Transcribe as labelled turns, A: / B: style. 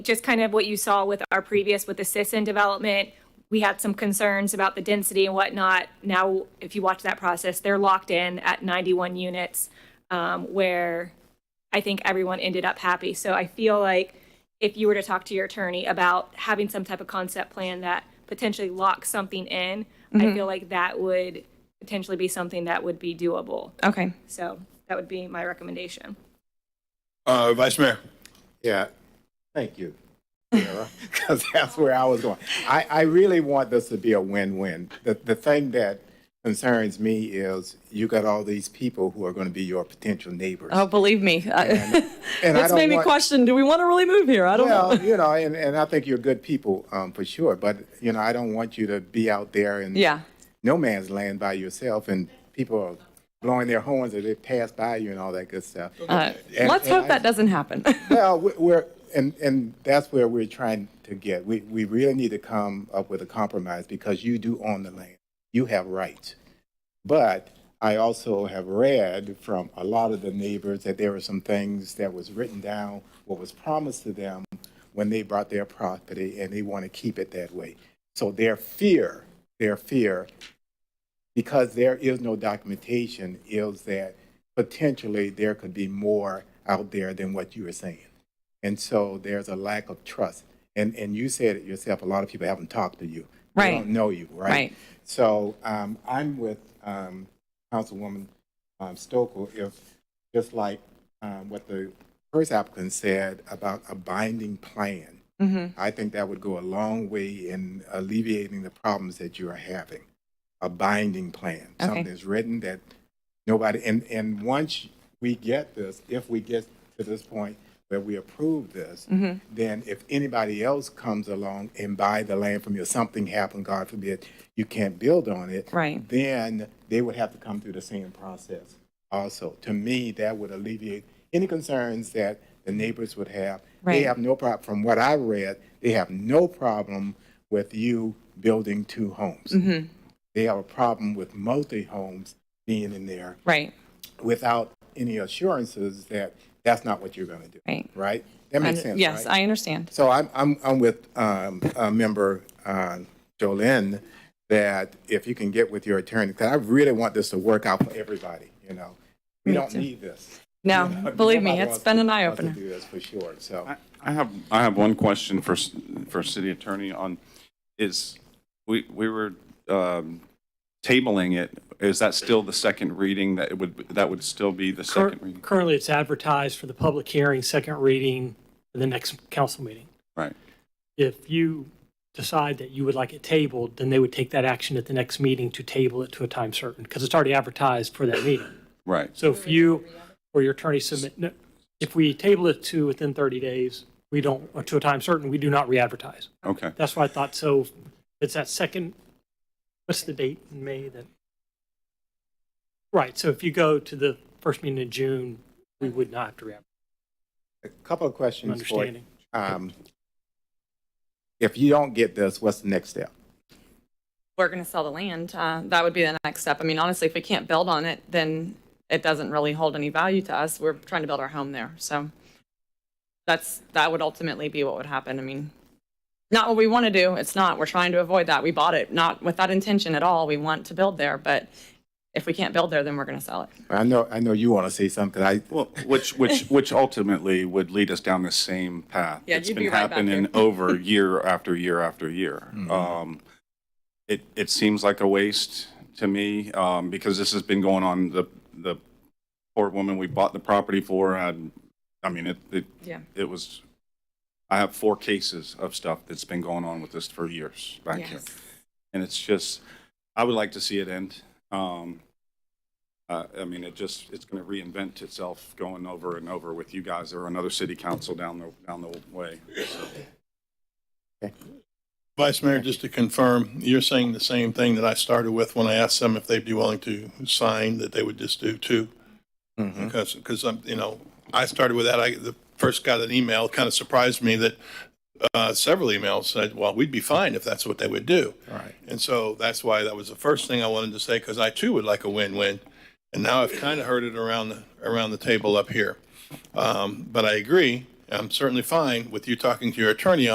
A: just kind of what you saw with our previous, with the Sisson development, we had some concerns about the density and whatnot. Now, if you watch that process, they're locked in at 91 units, um, where I think everyone ended up happy. So I feel like if you were to talk to your attorney about having some type of concept plan that potentially locks something in, I feel like that would potentially be something that would be doable.
B: Okay.
A: So that would be my recommendation.
C: Uh, Vice Mayor.
D: Yeah, thank you, because that's where I was going. I, I really want this to be a win-win. The, the thing that concerns me is you got all these people who are going to be your potential neighbors.
B: Oh, believe me. I-
D: And I
B: It's
D: don't
B: made me
D: want-
B: question, do we want to really move here? I don't know.
D: Well, you know, and, and I think you're good people, um, for sure, but, you know, I don't want you to be out there in
B: Yeah.
D: no man's land by yourself and people are blowing their horns as they pass by you and all that good stuff.
B: Uh,
D: And-
B: Let's
D: and
B: hope
D: I-
B: that doesn't happen.
D: Well, we- we're, and, and that's where we're trying to get. We, we really need to come up with a compromise because you do own the land. You have rights. But I also have read from a lot of the neighbors that there were some things that was written down, what was promised to them when they bought their property and they want to keep it that way. So their fear, their fear because there is no documentation, is that potentially there could be more out there than what you were saying. And so there's a lack of trust. And, and you said it yourself, a lot of people haven't talked to you.
B: Right.
D: They don't know you, right?
B: Right.
D: So um, I'm with um, Councilwoman um, Stokel, if, just like um, what the first applicant said about a binding plan.
B: Mm-hmm.
D: I think that would go a long way in alleviating the problems that you are having a binding plan,
B: Okay.
D: something that's written that nobody, and, and once we get this, if we get to this point where we approve this,
B: Mm-hmm.
D: then if anybody else comes along and buy the land from you, something happened, God forbid, you can't build on it.
B: Right.
D: Then they would have to come through the same process also. To me, that would alleviate any concerns that the neighbors would have. They
B: Right.
D: have no problem, from what I read, they have no problem with you building two homes
B: Mm-hmm.
D: they have a problem with multi-homes being in there
B: Right.
D: without any assurances that that's not what you're going to do.
B: Right.
D: Right? That makes
B: And-
D: sense,
B: Yes,
D: right?
B: I understand.
D: So I'm, I'm, I'm with, um, uh, member, uh, Jolene, that if you can get with your attorney, because I really want this to work out for everybody, you know? We don't need this.
B: No,
D: You know,
B: believe me,
D: nobody
B: it's
D: wants
B: been
D: to-
B: an eye
D: wants to
B: opener.
D: do this for sure, so.
E: I- I have, I have one question for, s- for city attorney on, is, we, we were um, tabling it. Is that still the second reading that it would, that would still be the
F: Cur-
E: second reading?
F: Currently, it's advertised for the public hearing, second reading, for the next council meeting.
E: Right.
F: If you decide that you would like it tabled, then they would take that action at the next meeting to table it to a time certain, because it's already advertised for that meeting.
E: Right.
F: So if you or your attorney submit, no, if we table it to within 30 days, we don't, or to a time certain, we do not re-advertise.
E: Okay.
F: That's why I thought, so it's that second, what's the date in May that? Right, so if you go to the first meeting in June, we would not have to re-advertise.
D: A couple of questions for you.
F: Understanding.
D: Um, If you don't get this, what's the next step?
B: We're going to sell the land. Uh, That would be the next step. I mean, honestly, if we can't build on it, then it doesn't really hold any value to us. We're trying to build our home there. So that's, that would ultimately be what would happen. I mean, not what we want to do. It's not. We're trying to avoid that. We bought it not with that intention at all. We want to build there, but if we can't build there, then we're going to sell it.
D: I know, I know you want to say something, 'cause I,
E: Well, which, which, which ultimately would lead us down the same path.
B: Yeah,
E: It's
B: you'd
E: been
B: be right back
E: happening
B: here.
E: over year after year after year. Um, It, it seems like a waste to me, um, because this has been going on, the, the poor woman we bought the property for, had, I mean, it, it,
B: Yeah.
E: it was, I have four cases of stuff that's been going on with this for years back here. And it's just, I would like to see it end. Um, uh, I mean, it just, it's going to reinvent itself going over and over with you guys or another city council down the, down the way.
C: Vice Mayor, just to confirm, you're saying the same thing that I started with when I asked them if they'd be willing to sign, that they would just do two? Because, because I'm, you know, I started with that. I, the first got an email, kind of surprised me that, uh, several emails said, well, we'd be fine if that's what they would do.
D: Right.
C: And so that's why that was the first thing I wanted to say, because I too would like a win-win. And now I've kind of heard it around, the around the table up here. Um, but I agree, I'm certainly fine with you talking to your attorney